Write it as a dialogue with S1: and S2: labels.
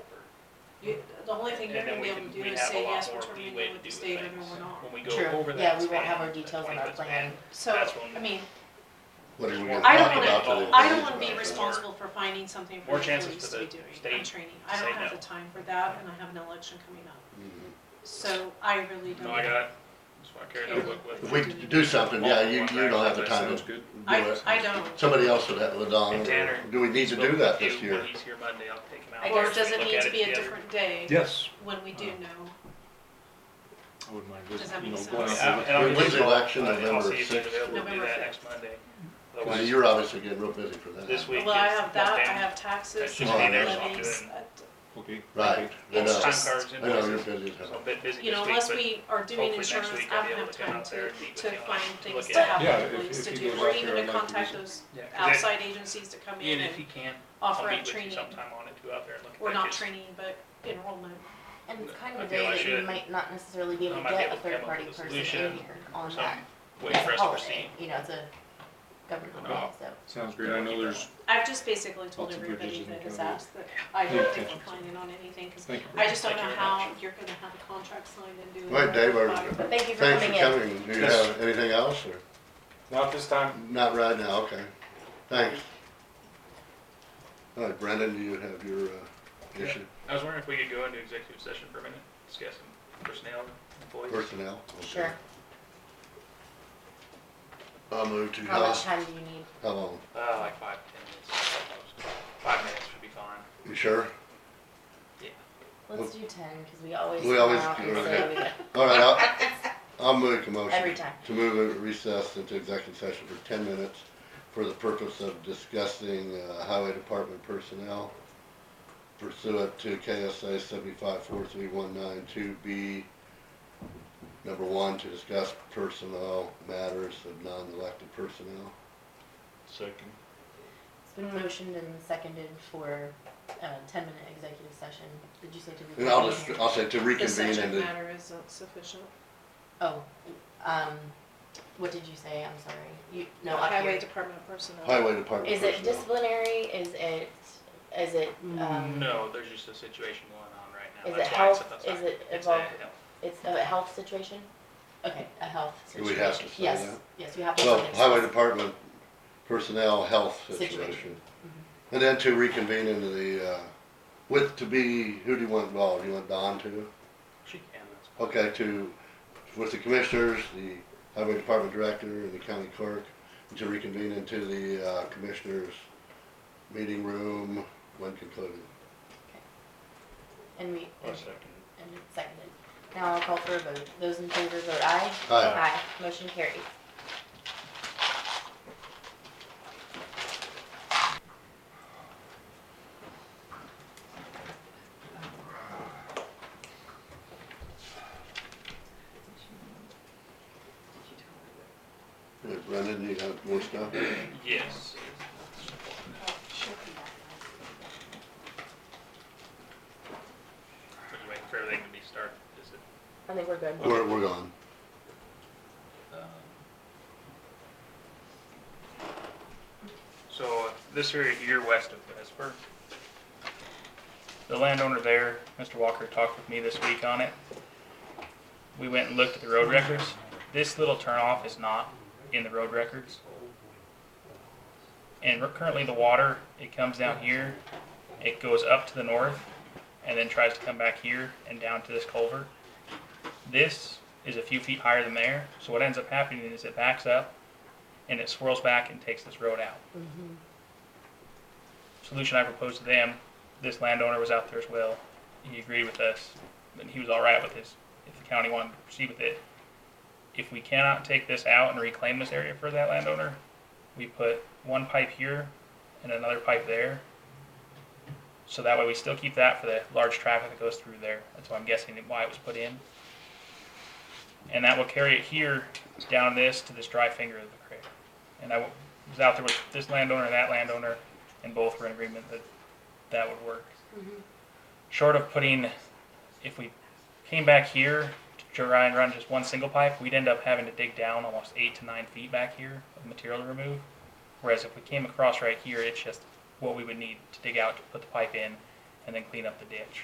S1: You, the only thing you're
S2: And then
S1: gonna be
S2: we
S1: able to
S2: can,
S1: do
S2: we
S1: is
S2: have a
S1: say yes,
S2: lot
S1: we're
S2: more
S1: turning
S2: leeway
S1: in
S2: to
S1: with
S2: do
S1: the
S2: things.
S1: state and we're not.
S2: When we
S3: True.
S2: go over
S3: Yeah,
S2: that
S3: we won't have
S2: span,
S3: our
S2: the
S3: details in our
S2: 20%
S3: plan.
S1: So,
S2: That's when-
S1: I mean,
S4: What are we gonna
S1: I don't
S4: talk
S1: wanna-
S4: about today?
S1: I don't wanna be
S2: More-
S1: responsible for finding something for
S2: more
S1: the
S2: chances
S1: employees
S2: for
S1: to be
S2: the
S1: doing
S2: state
S1: on training.
S2: to
S1: I
S2: say
S1: don't have
S2: no.
S1: the time for that and I have an election coming up.
S4: Mhm.
S1: So I really don't.
S2: No, I got it. That's why I carry a notebook with me.
S4: If we could do something, yeah, you, you don't have the time
S5: Sounds
S4: to do
S5: good.
S1: I,
S4: it.
S1: I don't.
S4: Somebody else would have, would on,
S2: And Tanner-
S4: do we need to do that this
S2: If
S4: year?
S2: He's here Monday, I'll take him out.
S1: Or
S2: First,
S1: does
S2: we
S1: it
S2: look
S1: need
S2: at
S1: to be a
S2: together.
S1: different day
S5: Yes.
S1: when we do
S5: Uh,
S1: know?
S5: I wouldn't mind
S1: Does
S5: just,
S1: that make
S5: you know,
S1: sense?
S5: going
S2: Yeah,
S5: out.
S2: and I'll
S4: When's
S2: give
S4: the
S2: you-
S4: election,
S2: I'll- I'll see
S4: November
S2: if he's
S4: 6th?
S2: available to do
S1: November
S2: that
S1: 5th.
S2: next Monday.
S4: Cause
S2: Otherwise,
S4: you're obviously getting real busy for that.
S2: This week.
S1: Well, I
S2: is
S1: have that, I
S2: lockdown.
S1: have taxes,
S2: That's
S1: I
S4: just me
S1: have
S4: there,
S2: so I'll do
S1: levies.
S2: it.
S1: uh,
S5: Okay.
S4: Right, I
S1: It's
S4: know,
S2: Time
S1: just-
S2: cards,
S4: I know you're
S2: invoices,
S4: busy as
S2: so I'm a
S4: hell.
S2: bit busy
S1: You know,
S2: this
S1: unless
S2: week,
S1: we are doing
S2: hopefully next
S1: insurance,
S2: week
S1: I
S2: I'll be
S1: haven't
S2: able
S1: enough
S2: to come
S1: time
S2: out there
S1: to,
S2: and meet
S1: to
S2: with you on
S1: find
S2: it, to
S1: things
S2: look
S1: to
S2: at
S1: have
S5: Yeah,
S1: the
S5: if-
S1: police
S5: if
S1: to
S5: he
S1: do,
S5: goes
S1: or even
S5: out there, I'd
S1: to
S5: like to
S1: contact
S5: do-
S1: those
S2: Yeah, 'cause that-
S1: outside agencies to come
S2: it. Ian,
S1: in and
S2: if you can, I'll
S1: offer
S2: meet
S1: up
S2: with you
S1: training.
S2: sometime on it, go out there and look at that.
S1: Or not
S2: 'cause
S1: training, but enrollment.
S3: And it's kind of
S2: I
S3: a
S2: feel
S3: day
S2: I
S3: that you
S2: should.
S3: might not necessarily be able
S2: I
S3: to
S2: might be
S3: get
S2: able
S3: a
S2: to come up
S3: third party
S2: with a
S3: person in
S2: solution
S3: here on
S2: some
S3: that
S2: Wait for us to proceed.
S3: holiday. You know, it's a government
S5: No.
S3: holiday, so.
S5: Sounds great. I know there's,
S1: I've just basically told
S5: Lots of
S1: everybody
S5: bridges in
S1: that has
S5: Canada.
S1: asked that I
S5: Yeah.
S1: don't decline in on anything, cause
S5: thank you.
S1: I just don't
S2: Thank
S1: know
S2: you very
S1: how you're gonna have a contract signed and do it.
S4: Wait, Dave, are-
S3: But thank you for
S4: Thanks
S3: coming
S4: for
S3: in.
S4: coming. Do you
S5: Yes.
S4: have anything else or?
S6: Not this time.
S4: Not right now, okay. Thanks. All right, Brendan, do you have your, uh,
S2: Yeah.
S4: issue
S2: I was wondering if we could go into executive session for a minute, discuss some personnel, employees.
S4: personnel? Okay.
S3: Sure.
S4: I'll move to,
S3: How much
S4: how,
S3: time do you need?
S4: how long?
S2: Uh, like five, ten minutes. Five minutes should be fine.
S4: You sure?
S3: Let's do ten, because we always
S4: We
S3: come
S4: always
S3: out
S4: do,
S3: and
S4: okay.
S3: say we got
S4: All right, I'll, I'll make a motion.
S3: every time.
S4: To move a recess into executive session for ten minutes for the purpose of discussing, uh, highway department personnel pursuant to KSA seventy-five four three one nine two B. Number one, to discuss personnel matters of non-elected personnel.
S5: Second.
S3: It's been motioned and seconded for a ten-minute executive session. Did you say to reconvene?
S4: And I'll just,
S3: here?
S4: I'll say to
S1: The
S4: reconvene
S1: subject
S4: in the,
S1: matter isn't sufficient.
S3: Oh, um, what did you say? I'm sorry. You, no, up
S1: Highway
S3: here.
S1: department personnel.
S4: highway department
S3: Is it
S4: personnel.
S3: disciplinary? Is it, is it, um?
S2: Mm, No, there's just a situation going on right now.
S3: Is
S2: That's
S3: it
S2: why it's
S3: health?
S2: outside.
S3: Is it
S2: It's a
S3: involved-
S2: health.
S3: It's a health situation? Okay, a health
S4: Do
S3: situation.
S4: we have to say
S3: Yes,
S4: that?
S3: yes, you have to.
S4: Well,
S3: say it.
S4: highway department personnel health situation.
S3: Situation.
S4: And then to reconvene into the, uh, with, to be, who do you want involved? You want Don too?
S2: She can, that's fine.
S4: Okay, to, with the commissioners, the highway department director, and the county clerk, to reconvene into the, uh, commissioners' meeting room when concluded.
S3: And we,
S2: Or
S3: and
S2: second.
S3: and it's seconded. Now I'll call for a vote. Those in favor vote aye.
S4: Aye.
S3: motion carried.
S4: Hey, Brendan, you got more stuff?
S2: Yes. Are you waiting for everything to be started? Is it,
S3: I think we're good.
S4: We're, we're gone.
S2: um, So uh, this area here west of Vesper, the landowner there, Mr. Walker, talked with me this week on it. We went and looked at the road records. This little turnoff is not in the road records. And we're currently the water, it comes down here, it goes up to the north, and then tries to come back here and down to this culvert. This is a few feet higher than there, so what ends up happening is it backs up and it swirls back and takes this road out.
S3: Mhm.
S2: Solution I proposed to them, this landowner was out there as well, he agreed with us, and he was all right with this, if the county wanted to proceed with it. If we cannot take this out and reclaim this area for that landowner, we put one pipe here and another pipe there. So that way we still keep that for the large traffic that goes through there. That's why I'm guessing why it was put in. And that will carry it here down this to this dry finger of the creek. And I w- was out there with this landowner and that landowner, and both were in agreement that that would work.
S3: Mhm.
S2: Short of putting, if we came back here to try and run just one single pipe, we'd end up having to dig down almost eight to nine feet back here of material to remove. Whereas if we came across right here, it's just what we would need to dig out to put the pipe in and then clean up the ditch.